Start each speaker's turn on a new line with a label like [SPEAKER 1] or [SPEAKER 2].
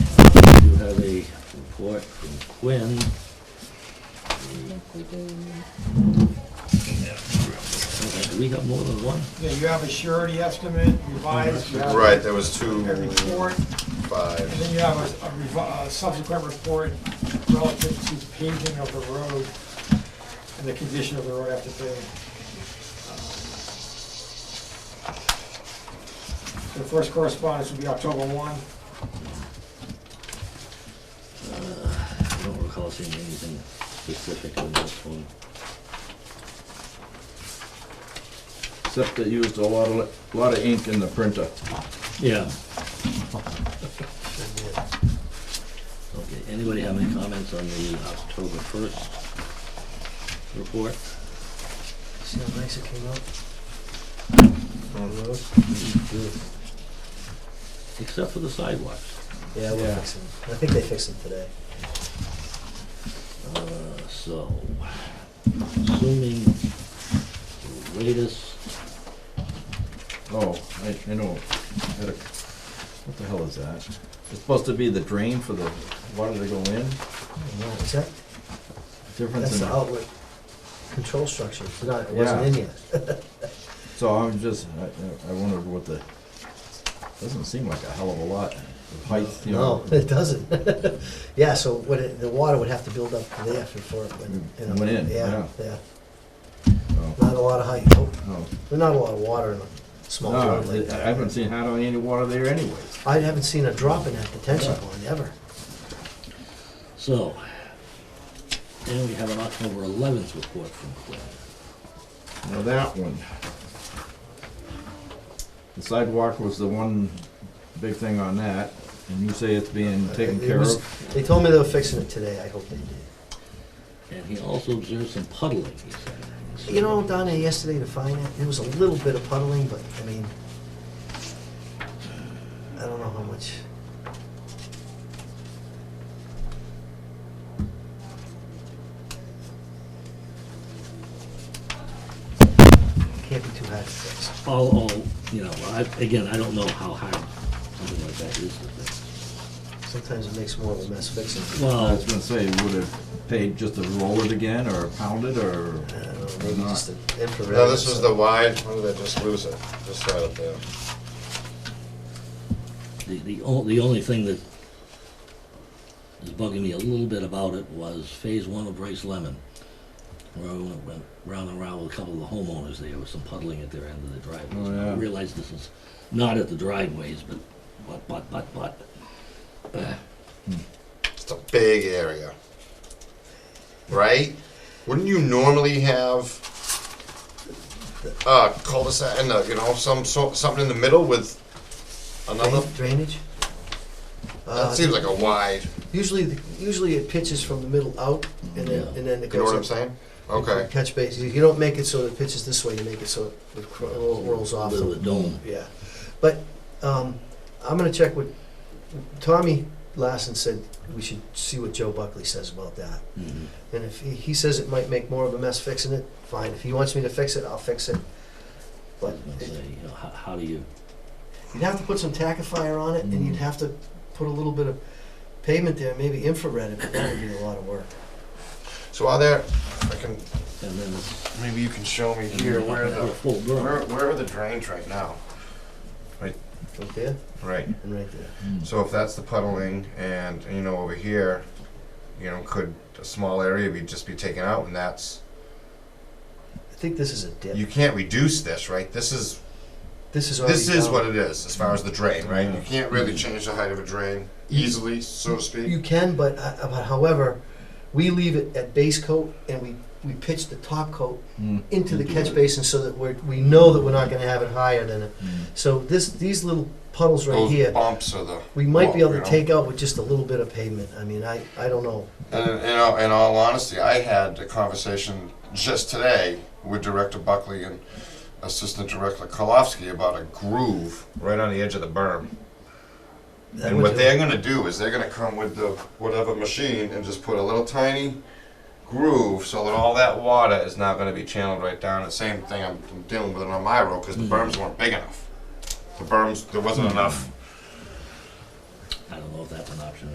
[SPEAKER 1] when, do we have more than one?
[SPEAKER 2] Yeah, you have a surety estimate revised. you have
[SPEAKER 3] Right, there was two,
[SPEAKER 2] A report, and
[SPEAKER 3] five.
[SPEAKER 2] then you have a- a revi- a subsequent report relative to paving of the road and the condition of the road after paving. The first correspondence will be October 1.
[SPEAKER 1] I don't recall seeing anything specific on this one.
[SPEAKER 4] Except they used a lot of, lot of ink in the printer.
[SPEAKER 1] Yeah. Okay, anybody have any comments on the October first report?
[SPEAKER 5] See how nice it came out?
[SPEAKER 1] Except for the sidewalks.
[SPEAKER 5] Yeah, we'll fix them. I think they fixed them today.
[SPEAKER 1] Uh, so, assuming the latest,
[SPEAKER 4] Oh, I, I know. I had a- What the hell is that? It's supposed to be the drain for the water to go in?
[SPEAKER 5] No, is that,
[SPEAKER 4] Difference
[SPEAKER 5] that's the
[SPEAKER 4] in,
[SPEAKER 5] outlet control structure. It's not, it wasn't in yet.
[SPEAKER 4] so I'm just, I, I- I wondered what the, doesn't seem like a hell of a lot. The height, you
[SPEAKER 5] No,
[SPEAKER 4] know.
[SPEAKER 5] it doesn't. Yeah, so what, it- the water would have to build up to there before it went. you know.
[SPEAKER 4] Went Mm, in, yeah.
[SPEAKER 5] Yeah,
[SPEAKER 4] Oh,
[SPEAKER 5] not a lot of height.
[SPEAKER 4] no.
[SPEAKER 5] There's not a lot of water in a small
[SPEAKER 4] No,
[SPEAKER 5] road like
[SPEAKER 4] I
[SPEAKER 5] that.
[SPEAKER 4] haven't seen hardly any water there anyways.
[SPEAKER 5] I haven't seen a drop in that detention
[SPEAKER 4] Yeah.
[SPEAKER 5] pond ever.
[SPEAKER 1] so, then we have an October eleventh report from Quinn.
[SPEAKER 4] Now that one. The sidewalk was the one big thing on that, and you say it's being taken
[SPEAKER 5] It
[SPEAKER 4] care
[SPEAKER 5] was-
[SPEAKER 4] of.
[SPEAKER 5] They told me they were fixing it today. I hope they did.
[SPEAKER 1] And he also observed some puddling, he said.
[SPEAKER 5] You know, down there yesterday to find it, there was a little bit of puddling, but I mean, I don't know how much. Can't be too hard to fix.
[SPEAKER 1] All, all, you know, I, again, I don't know how hard something like that is to fix.
[SPEAKER 5] Sometimes it makes more of a mess fixing. it.
[SPEAKER 4] I
[SPEAKER 1] Well,
[SPEAKER 4] was gonna say, would have paid just to roll it again, or pound it, or
[SPEAKER 5] I don't know,
[SPEAKER 4] or
[SPEAKER 5] Uh, maybe
[SPEAKER 4] not?
[SPEAKER 5] just an infrared.
[SPEAKER 3] No, this
[SPEAKER 5] or
[SPEAKER 3] is the
[SPEAKER 5] something.
[SPEAKER 3] wide, when did I just lose it? This side up there.
[SPEAKER 1] the, the on- the only thing that is bugging me a little bit about it was phase one of Bryce Lemon. Where I went, went round and round with a couple of the homeowners there with some puddling at their end of the driveways.
[SPEAKER 4] Oh, yeah.
[SPEAKER 1] I realize this is not at the driveways, but, but, but, but, but.
[SPEAKER 3] It's a big area. Right? Wouldn't you normally have a cul-de-sac and a, you know, some, so- something in the middle with another?
[SPEAKER 5] Drain- Drainage?
[SPEAKER 3] That
[SPEAKER 5] Uh,
[SPEAKER 3] seems like a wide,
[SPEAKER 5] Usually, the- usually it pitches from the middle out and then,
[SPEAKER 1] Yeah.
[SPEAKER 5] and then it goes.
[SPEAKER 3] you know what
[SPEAKER 5] up.
[SPEAKER 3] I'm saying? Okay.
[SPEAKER 5] Catch base, you don't make it so it pitches this way, you make it so it cr- rolls off.
[SPEAKER 1] Little dome.
[SPEAKER 5] Yeah, but, um, I'm gonna check with, Tommy Lassen said we should see what Joe Buckley says about that.
[SPEAKER 1] Mhm.
[SPEAKER 5] And if he, he says it might make more of a mess fixing it, fine, if he wants me to fix it, I'll fix it.
[SPEAKER 1] I
[SPEAKER 5] But
[SPEAKER 1] was gonna
[SPEAKER 5] it-
[SPEAKER 1] say, you know, how, how do you,
[SPEAKER 5] you'd have to put some tackifier on it, and you'd
[SPEAKER 3] Mm-hmm.
[SPEAKER 5] have to put a little bit of pavement there, maybe infrared, but that would be a lot of work.
[SPEAKER 3] So are there, I can,
[SPEAKER 1] and then it's.
[SPEAKER 3] maybe you can show me
[SPEAKER 1] and
[SPEAKER 3] here
[SPEAKER 1] then
[SPEAKER 3] where
[SPEAKER 1] a
[SPEAKER 3] the,
[SPEAKER 1] Full burn.
[SPEAKER 3] where, where are the drains right now?
[SPEAKER 5] Right there
[SPEAKER 3] Right.
[SPEAKER 5] and right there.
[SPEAKER 3] So if that's the puddling and, you know, over here, you know, could a small area be, just be taken out and that's,
[SPEAKER 5] I think this is a
[SPEAKER 3] you
[SPEAKER 5] dip.
[SPEAKER 3] can't reduce this, right? This is
[SPEAKER 5] This is already
[SPEAKER 3] This is
[SPEAKER 5] down.
[SPEAKER 3] what it is, as far as the drain, right? You
[SPEAKER 4] Yeah.
[SPEAKER 3] can't really change the height of a drain easily, so to
[SPEAKER 5] You
[SPEAKER 3] speak.
[SPEAKER 5] can, but, uh, but however, we leave it at base coat and we, we pitch the top coat
[SPEAKER 4] Mm,
[SPEAKER 5] into the
[SPEAKER 4] Into
[SPEAKER 5] catch
[SPEAKER 4] it.
[SPEAKER 5] basin so that we're, we know that we're not gonna have it higher than it.
[SPEAKER 4] mm.
[SPEAKER 5] So this, these little puddles right
[SPEAKER 3] Those
[SPEAKER 5] here,
[SPEAKER 3] bumps are the.
[SPEAKER 5] we might be able
[SPEAKER 3] you
[SPEAKER 5] to
[SPEAKER 3] know.
[SPEAKER 5] take out with just a little bit of pavement. I mean, I, I don't know.
[SPEAKER 3] And in, in all, in all honesty, I had a conversation just today with Director Buckley and Assistant Director Kolofsky about a groove right on the edge of the berm.
[SPEAKER 5] That
[SPEAKER 3] And
[SPEAKER 5] would
[SPEAKER 3] what
[SPEAKER 5] do-
[SPEAKER 3] they're gonna do is they're gonna come with the whatever machine and just put a little tiny groove so that all that water is now gonna be channeled right down. The same thing I'm I'm dealing with it on my road, cause the berms weren't big enough. The berms, there wasn't enough
[SPEAKER 1] I don't know if that's an option